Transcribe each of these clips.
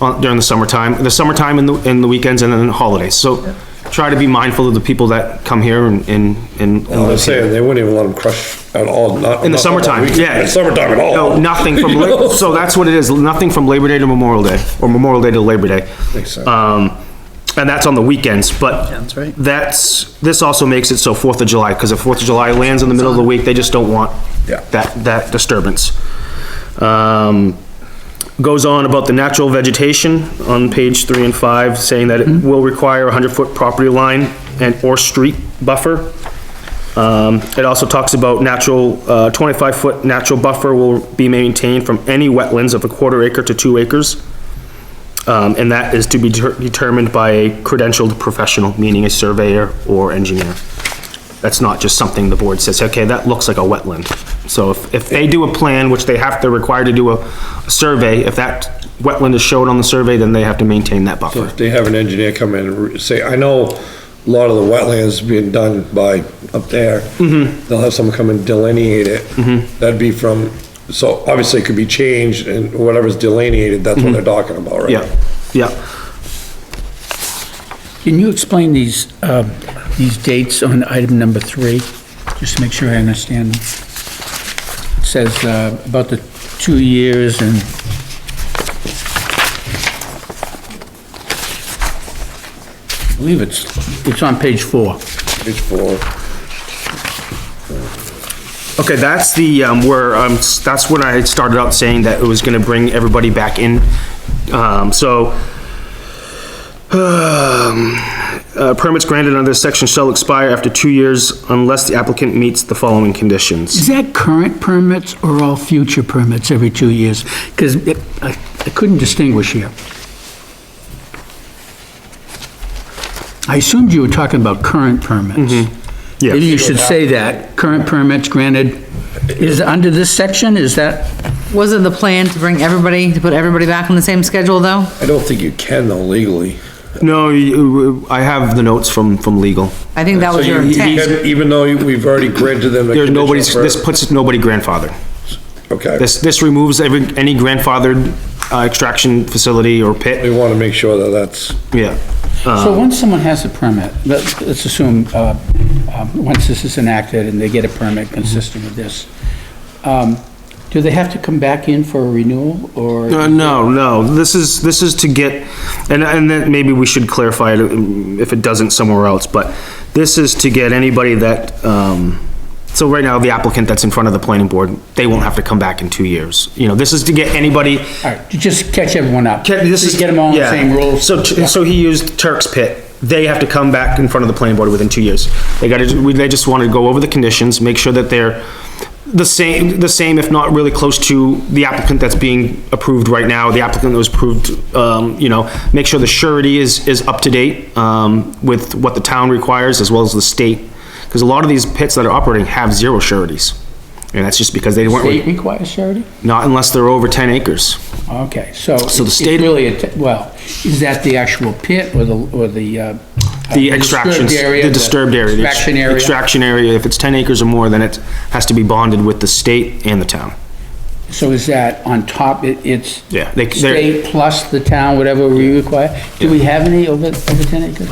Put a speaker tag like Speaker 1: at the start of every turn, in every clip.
Speaker 1: on- during the summertime, the summertime and the, and the weekends and then holidays. So try to be mindful of the people that come here and, and, and
Speaker 2: I
Speaker 1: live
Speaker 2: was
Speaker 1: here.
Speaker 2: saying, they wouldn't even let them crush at all, not.
Speaker 1: In the
Speaker 2: not on
Speaker 1: summertime,
Speaker 2: weekend,
Speaker 1: yeah.
Speaker 2: in Summertime at all.
Speaker 1: No, nothing from,
Speaker 2: You know?
Speaker 1: Lab- so that's what it is, nothing from Labor Day to Memorial Day, or Memorial Day to Labor Day.
Speaker 2: Makes sense.
Speaker 1: Um, and that's on the weekends, but
Speaker 3: Sounds right.
Speaker 1: that's, this also makes it so Fourth of July, because if Fourth of July lands in the middle of the week, they just don't want
Speaker 2: Yeah.
Speaker 1: that, that disturbance. Um, goes on about the natural vegetation on page three and five, saying that it will require a hundred-foot property line and or street buffer. Um, it also talks about natural, uh, twenty-five foot natural buffer will be maintained from any wetlands of a quarter acre to two acres. Um, and that is to be deter- determined by a credentialed professional, meaning a surveyor or engineer. That's not just something the board says, okay, that looks like a wetland. So if, if they do a plan, which they have, they're required to do a, a survey, if that wetland is shown on the survey, then they have to maintain that buffer.
Speaker 2: If They have an engineer come in and re- say, I know a lot of the wetlands being done by up there.
Speaker 1: Mm-hmm.
Speaker 2: They'll have someone come and delineate it. That'd be from, so obviously it could be changed and whatever's delineated, that's what they're talking about, right?
Speaker 1: Mm-hmm. Yeah, yeah.
Speaker 3: Can you explain these, um, these dates on item number three? Just to make sure I understand. them. It Says uh, about the two years and... I believe it's, it's on page four.
Speaker 2: Page four.
Speaker 1: Okay, that's the, um, where, um, s- that's when I started out saying that it was gonna bring everybody back in. Um, so, um, uh, permits granted under this section shall expire after two years unless the applicant meets the following conditions.
Speaker 3: Is that current permits or all future permits every two years? Because I I couldn't distinguish here. I assumed you were talking about current permits.
Speaker 1: Yeah.
Speaker 3: Maybe you should say that, current permits granted, is under this section, is that,
Speaker 4: Wasn't the plan to bring everybody, to put everybody back on the same schedule, though?
Speaker 2: I don't think you can though legally.
Speaker 1: No, you- I have the notes from, from legal.
Speaker 4: I think that was
Speaker 2: So
Speaker 4: your
Speaker 2: you- you
Speaker 4: intent.
Speaker 2: can- Even though we've already granted them. the
Speaker 1: There's
Speaker 2: conditional
Speaker 1: nobody's, this
Speaker 2: permit.
Speaker 1: puts nobody grandfathered.
Speaker 2: Okay.
Speaker 1: This, this removes every, any grandfathered, uh, extraction facility or
Speaker 2: We
Speaker 1: pit,
Speaker 2: want to make sure that that's,
Speaker 1: yeah.
Speaker 3: so once someone has a permit, let's, let's assume, uh, um, once this is enacted and they get a permit consistent with this, um, do they have to come back in for a renewal, or?
Speaker 1: Uh, no, no, this is, this is to get, and, and then maybe we should clarify it um, if it doesn't somewhere else, but this is to get anybody that, um, so right now, the applicant that's in front of the planning board, they won't have to come back in two years. You know, this is to get anybody,
Speaker 3: All right, you just catch everyone up.
Speaker 1: Ken, this is.
Speaker 3: Just Get them all on the
Speaker 1: yeah.
Speaker 3: same rules.
Speaker 1: So, t- so he used Turk's Pit. They have to come back in front of the planning board within two years. They gotta, we- they just wanna go over the conditions, make sure that they're the same, the same, if not really close to the applicant that's being approved right now, the applicant that was approved, um, you know, make sure the surety is, is up to date, um, with what the town requires as well as the state. Cause a lot of these pits that are operating have zero sureties. And that's just because they weren't,
Speaker 3: State
Speaker 1: re-
Speaker 3: requires charity?
Speaker 1: not unless they're over ten acres.
Speaker 3: Okay, so.
Speaker 1: So the
Speaker 3: it's
Speaker 1: state-
Speaker 3: Really, a te- well, is that the actual pit or the, or the? uh,
Speaker 1: The extraction,
Speaker 3: disturbed area,
Speaker 1: the disturbed area. the ex-
Speaker 3: Extraction area.
Speaker 1: Extraction area, if it's 10 acres or more, then it has to be bonded with the state and the town.
Speaker 3: So is that on top, it, it's?
Speaker 1: Yeah, they- they're-
Speaker 3: State plus the town, whatever we require? Do we have any over, over ten acres?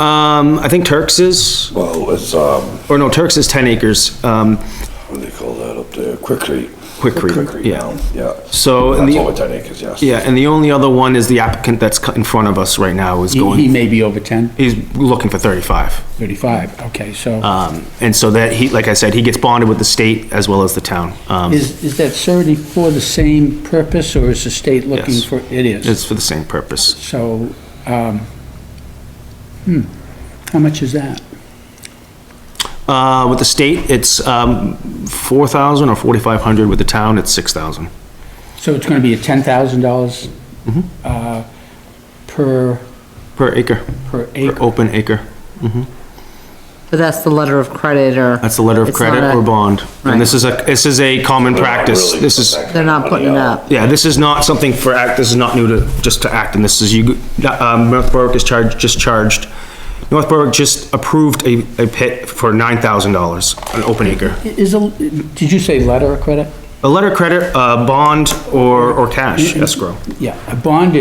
Speaker 1: Um, I think Turks is,
Speaker 5: Well, it's, um,
Speaker 1: or no, Turks is 10 acres, um,
Speaker 5: what do they call that up there? Quick Creek.
Speaker 1: Quick Creek, yeah.
Speaker 5: now, Yeah.
Speaker 1: So, and
Speaker 5: That's
Speaker 1: the-
Speaker 5: over ten acres, yes.
Speaker 1: yeah, and the only other one is the applicant that's cu- in front of us right now is
Speaker 3: He, he
Speaker 1: going,
Speaker 3: may be over 10,
Speaker 1: he's looking for 35.
Speaker 3: 35, okay, so.
Speaker 1: Um, and so that, he, like I said, he gets bonded with the state as well as the town. Um,
Speaker 3: Is, is that surety for the same purpose or is the state looking
Speaker 1: Yes.
Speaker 3: for? It is.
Speaker 1: It's for the same purpose.
Speaker 3: So, um, hmm, how much is that?
Speaker 1: Uh, with the state, it's, um, 4,000 or 4,500, with the town, it's 6,000.
Speaker 3: So it's gonna be a ten thousand dollars, uh, per,
Speaker 1: Per acre.
Speaker 3: per
Speaker 1: Per
Speaker 3: acre?
Speaker 1: open acre.
Speaker 4: But that's the letter of credit, or.
Speaker 1: That's a letter of
Speaker 4: It's not
Speaker 1: credit
Speaker 4: a-
Speaker 1: or bond. And this
Speaker 4: Right.
Speaker 1: is a, this is a common practice.
Speaker 5: Really,
Speaker 1: This is,
Speaker 5: that kind
Speaker 4: They're
Speaker 5: of
Speaker 4: not putting it
Speaker 5: money out.
Speaker 4: up.
Speaker 1: yeah, this is not something for act, this is not new to, just to act. And this is you, um, North Berwick is charged, just charged. North Berwick just approved a, a pit for nine thousand dollars, an open acre.
Speaker 3: Is a, did you say letter of credit?
Speaker 1: uh, A letter of credit, a bond, or, or cash escrow.
Speaker 3: Yeah, a bond